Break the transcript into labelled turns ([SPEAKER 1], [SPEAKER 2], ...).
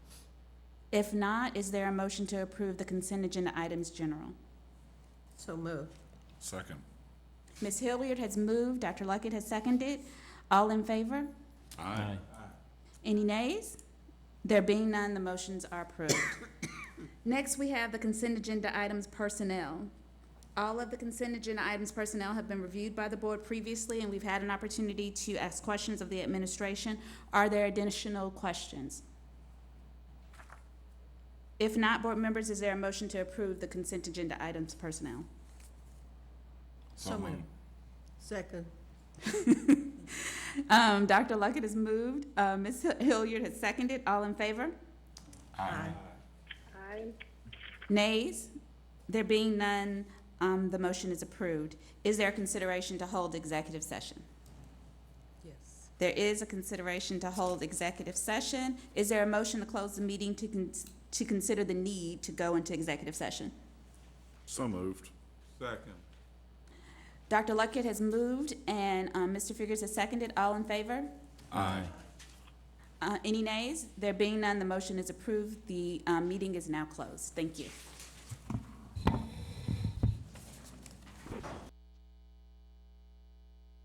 [SPEAKER 1] If not, is there a motion to approve the consent agenda items general?
[SPEAKER 2] So moved.
[SPEAKER 3] Second.
[SPEAKER 1] Ms. Hilliard has moved, Dr. Luckett has seconded. All in favor?
[SPEAKER 3] Aye.
[SPEAKER 1] Any nays? There being none, the motions are approved. Next, we have the consent agenda items personnel. All of the consent agenda items personnel have been reviewed by the board previously, and we've had an opportunity to ask questions of the administration. Are there additional questions? If not, board members, is there a motion to approve the consent agenda items personnel?
[SPEAKER 2] So moved. Second.
[SPEAKER 1] Um, Dr. Luckett has moved, uh, Ms. Hilliard has seconded. All in favor?
[SPEAKER 3] Aye.
[SPEAKER 1] Nays? There being none, um, the motion is approved. Is there a consideration to hold executive session?
[SPEAKER 2] Yes.
[SPEAKER 1] There is a consideration to hold executive session. Is there a motion to close the meeting to con- to consider the need to go into executive session?
[SPEAKER 3] So moved.
[SPEAKER 4] Second.
[SPEAKER 1] Dr. Luckett has moved and, um, Mr. Figurs has seconded. All in favor?
[SPEAKER 3] Aye.
[SPEAKER 1] Uh, any nays? There being none, the motion is approved. The, um, meeting is now closed. Thank you.